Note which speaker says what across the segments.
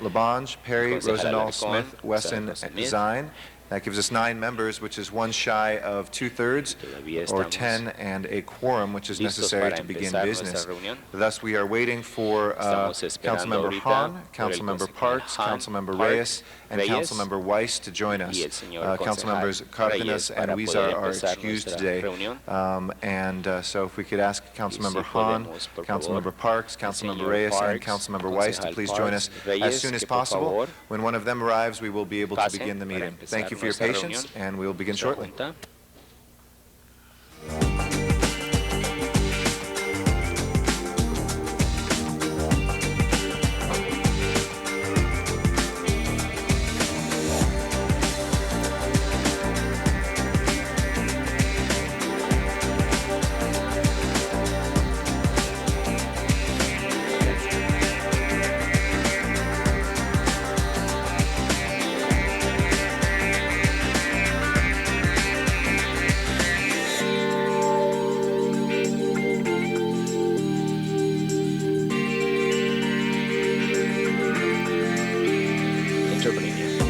Speaker 1: Labange, Perry,
Speaker 2: Concejal
Speaker 1: Rosendahl,
Speaker 2: Alarcón,
Speaker 1: Smith,
Speaker 2: concejal
Speaker 1: Wesson,
Speaker 2: Smith.
Speaker 1: Zine. That gives us nine members, which is one shy of two-thirds,
Speaker 2: Todavía
Speaker 1: or
Speaker 2: estamos
Speaker 1: 10, and a quorum, which is
Speaker 2: listos
Speaker 1: necessary
Speaker 2: para
Speaker 1: to begin
Speaker 2: empezar nuestra
Speaker 1: business.
Speaker 2: reunión.
Speaker 1: Thus, we are waiting for uh,
Speaker 2: Estamos esperando
Speaker 1: Councilmember
Speaker 2: ahorita
Speaker 1: Hahn,
Speaker 2: por el
Speaker 1: Councilmember
Speaker 2: concejal
Speaker 1: Parks,
Speaker 2: Hahn,
Speaker 1: Councilmember
Speaker 2: Park,
Speaker 1: Reyes, and
Speaker 2: Reyes,
Speaker 1: Councilmember Weiss to join us.
Speaker 2: y el señor
Speaker 1: Uh,
Speaker 2: concejal
Speaker 1: Councilmembers
Speaker 2: Reyes
Speaker 1: Cardenas and
Speaker 2: para
Speaker 1: Weezer
Speaker 2: poder
Speaker 1: are
Speaker 2: empezar
Speaker 1: excused
Speaker 2: nuestra
Speaker 1: today.
Speaker 2: reunión.
Speaker 1: Um, And uh, so if we could ask Councilmember Hahn,
Speaker 2: podemos, por favor,
Speaker 1: Councilmember Parks, Councilmember
Speaker 2: señor
Speaker 1: Reyes, and
Speaker 2: Parks,
Speaker 1: Councilmember Weiss to
Speaker 2: concejal
Speaker 1: please join
Speaker 2: Parks,
Speaker 1: us as
Speaker 2: Reyes,
Speaker 1: soon as
Speaker 2: que por
Speaker 1: possible.
Speaker 2: favor
Speaker 1: When one of them arrives, we will be able to
Speaker 2: pasen
Speaker 1: begin the
Speaker 2: para
Speaker 1: meeting.
Speaker 2: empezar
Speaker 1: Thank you for your
Speaker 2: nuestra
Speaker 1: patience,
Speaker 2: reunión.
Speaker 1: and we will begin
Speaker 2: nuestra
Speaker 1: shortly.
Speaker 2: junta. Entrepreneur.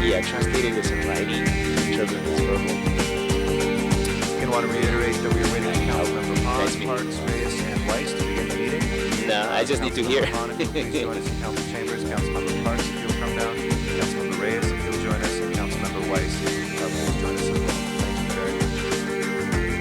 Speaker 2: We are translating this in writing. Entrepreneur is verbal.
Speaker 1: Again, want to reiterate that we are waiting for Councilmember
Speaker 2: Nice
Speaker 1: Hahn,
Speaker 2: meeting.
Speaker 1: Parks, Reyes, and Weiss to begin the meeting.
Speaker 2: No, I just need to hear.
Speaker 1: Councilmember Hahn, if you'll please join us in Council Chambers, Councilmember Parks, if you'll come down, Councilmember Reyes, if you'll join us, and Councilmember Weiss, if you'll please join us as well. Thank you very much.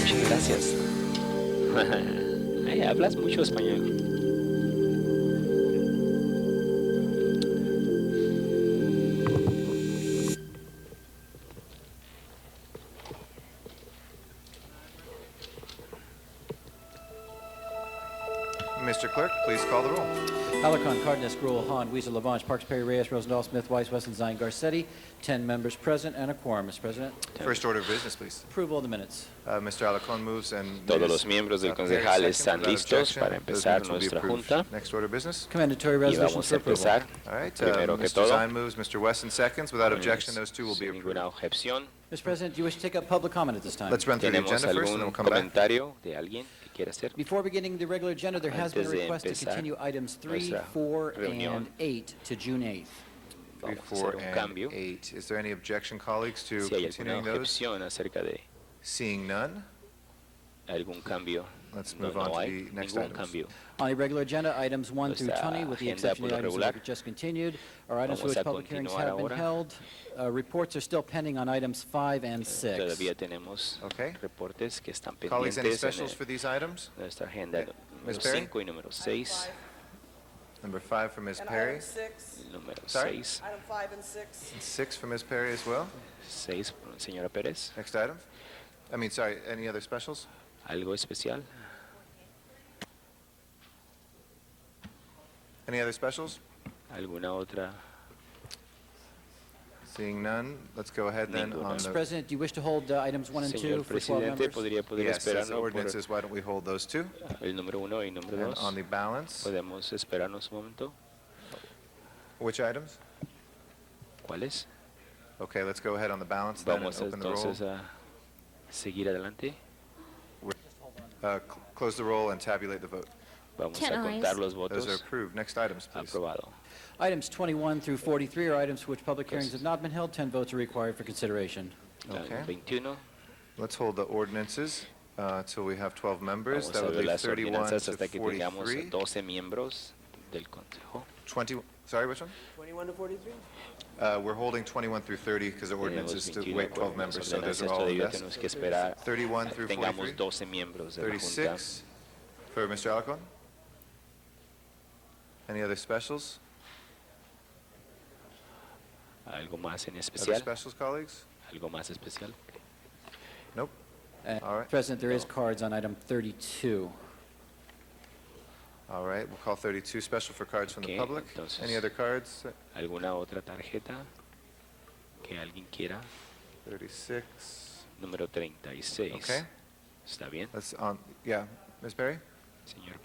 Speaker 2: Muchas gracias. Ay, hablas mucho español.
Speaker 1: Mr. Clerk, please call the roll.
Speaker 3: Alarcon, Cardenas, Gruel, Hahn, Weezer, Lavange, Parks, Perry, Reyes, Rosendahl, Smith, Weiss, Wesson, Zine, Garcetti. Ten members present and a quorum, Mr. President.
Speaker 1: First order of business, please.
Speaker 3: Approval of the minutes.
Speaker 1: Uh, Mr. Alacon moves and...
Speaker 2: Todos
Speaker 1: Ms.
Speaker 2: los miembros del
Speaker 1: Uh, Perry seconds
Speaker 2: concejal están
Speaker 1: without
Speaker 2: listos
Speaker 1: objection.
Speaker 2: para
Speaker 1: Those
Speaker 2: empezar
Speaker 1: minutes will be
Speaker 2: nuestra
Speaker 1: approved.
Speaker 2: junta.
Speaker 1: Next order of business.
Speaker 3: Commendatory
Speaker 2: Y
Speaker 3: resolutions
Speaker 2: vamos
Speaker 3: for
Speaker 2: a
Speaker 3: approval.
Speaker 2: empezar.
Speaker 1: All right, uh,
Speaker 2: Primero que
Speaker 1: Mr.
Speaker 2: todo. eh,
Speaker 1: Zine moves, Mr. Wesson seconds. Without objection,
Speaker 2: Sin
Speaker 1: those two will be approved.
Speaker 2: Ninguna objeción.
Speaker 3: Mr. President, do you wish to take up public comment at this time?
Speaker 1: Let's run through the agenda
Speaker 2: ¿Tenemos
Speaker 1: first, and then we'll
Speaker 2: algún
Speaker 1: come back.
Speaker 2: comentario de alguien que quiera hacer?
Speaker 3: Before beginning the regular agenda, there has been a
Speaker 2: Antes de
Speaker 3: request to
Speaker 2: empezar
Speaker 3: continue items 3,
Speaker 2: nuestra
Speaker 3: 4,
Speaker 2: reunión.
Speaker 3: and 8 to June 8th.
Speaker 1: Three,
Speaker 2: Vamos a
Speaker 1: four,
Speaker 2: hacer un
Speaker 1: and
Speaker 2: cambio.
Speaker 1: eight. Is there any objection, colleagues, to
Speaker 2: Si hay alguna
Speaker 1: continuing those?
Speaker 2: objeción acerca de
Speaker 1: Seeing none,
Speaker 2: algún cambio,
Speaker 1: Let's
Speaker 2: no,
Speaker 1: move on
Speaker 2: no
Speaker 1: to
Speaker 2: hay
Speaker 1: the next
Speaker 2: ningún
Speaker 1: items.
Speaker 2: cambio.
Speaker 3: On the regular agenda, items 1 through
Speaker 2: Nuestra
Speaker 3: 20, with the
Speaker 2: agenda
Speaker 3: exception of the
Speaker 2: por lo
Speaker 3: items that
Speaker 2: regular.
Speaker 3: were just continued, are items for
Speaker 2: Vamos
Speaker 3: which
Speaker 2: a
Speaker 3: public hearings
Speaker 2: continuar
Speaker 3: have been
Speaker 2: ahora.
Speaker 3: held. Uh, Reports are still pending on items 5 and 6.
Speaker 2: Todavía tenemos
Speaker 1: Okay.
Speaker 2: reportes que están
Speaker 1: colleagues, any
Speaker 2: pendientes en
Speaker 1: specials
Speaker 2: eh,
Speaker 1: for these items?
Speaker 2: nuestra agenda
Speaker 1: Yeah. Miss
Speaker 2: número
Speaker 1: Perry?
Speaker 2: 5 y número 6.
Speaker 1: Number five for Ms.
Speaker 4: And
Speaker 1: Perry,
Speaker 4: item six,
Speaker 2: Número
Speaker 1: Sorry?
Speaker 2: 6,
Speaker 4: item five and six,
Speaker 1: and six for Ms. Perry as well.
Speaker 2: 6, señora Pérez.
Speaker 1: Next item. I mean, sorry, any other specials?
Speaker 2: ¿Algo especial?
Speaker 1: Any other specials?
Speaker 2: ¿Alguna otra?
Speaker 1: Seeing none, let's go ahead then
Speaker 2: Ninguna.
Speaker 1: on
Speaker 3: Mr.
Speaker 1: the...
Speaker 3: President, do you wish to hold uh, items 1 and 2
Speaker 2: Uh, Señor
Speaker 3: for 12
Speaker 2: presidente,
Speaker 3: members?
Speaker 2: podría poder
Speaker 1: Yes, as
Speaker 2: esperarnos por
Speaker 1: ordinances, why don't we hold those two?
Speaker 2: el número 1 y número
Speaker 1: And on
Speaker 2: 2.
Speaker 1: the balance,
Speaker 2: ¿Podemos esperarnos un momento?
Speaker 1: which items?
Speaker 2: ¿Cuáles?
Speaker 1: Okay, let's go ahead on the balance then and
Speaker 2: Vamos
Speaker 1: open the roll.
Speaker 2: entonces a seguir adelante.
Speaker 1: Uh, cl- Close the roll and tabulate the vote.
Speaker 2: Vamos
Speaker 5: Ten
Speaker 2: a contar
Speaker 5: ayes.
Speaker 1: Those
Speaker 2: los
Speaker 1: are
Speaker 2: votos.
Speaker 1: approved. Next items, please.
Speaker 2: Aprobado.
Speaker 3: Items 21 through 43 are items for which public hearings
Speaker 2: Gracias.
Speaker 3: have not been held. 10 votes are required for consideration.
Speaker 1: Okay.
Speaker 2: El 21.
Speaker 1: Let's hold the ordinances until we have 12 members.
Speaker 2: Vamos
Speaker 1: That
Speaker 2: a
Speaker 1: would
Speaker 2: ver
Speaker 1: leave
Speaker 2: las
Speaker 1: 31
Speaker 2: ordenanzas
Speaker 1: to
Speaker 2: hasta que tengamos
Speaker 1: 43.
Speaker 2: 12 miembros del Consejo.
Speaker 1: 20, sorry, which one?
Speaker 4: twenty-one to forty-three?
Speaker 1: Uh, We're holding 21 through 30 because the
Speaker 2: Tenemos
Speaker 1: ordinances to
Speaker 2: 21
Speaker 1: wait 12
Speaker 2: órdenes,
Speaker 1: members, so those
Speaker 2: ordenanzas,
Speaker 1: are all
Speaker 2: todavía
Speaker 1: yes.
Speaker 2: tenemos que esperar
Speaker 1: 31
Speaker 2: a-
Speaker 1: through
Speaker 2: tengamos
Speaker 1: 43.
Speaker 2: 12 miembros de la Junta.
Speaker 1: 36 for Mr. Alacon. Any other specials?
Speaker 2: ¿Algo más en
Speaker 1: Other
Speaker 2: especial?
Speaker 1: specials, colleagues?
Speaker 2: ¿Algo más especial?
Speaker 1: Nope.
Speaker 3: Uh,
Speaker 1: All right.
Speaker 3: President, there is
Speaker 2: No.
Speaker 3: cards on item 32.
Speaker 1: All right, we'll call 32 special for cards from the
Speaker 2: Okay,
Speaker 1: public. Any
Speaker 2: entonces-
Speaker 1: other cards?
Speaker 2: ¿Alguna otra tarjeta que alguien quiera?
Speaker 1: 36,
Speaker 2: Número 36.
Speaker 1: okay.
Speaker 2: ¿Está bien,
Speaker 1: That's on, yeah, Ms. Perry?
Speaker 2: señor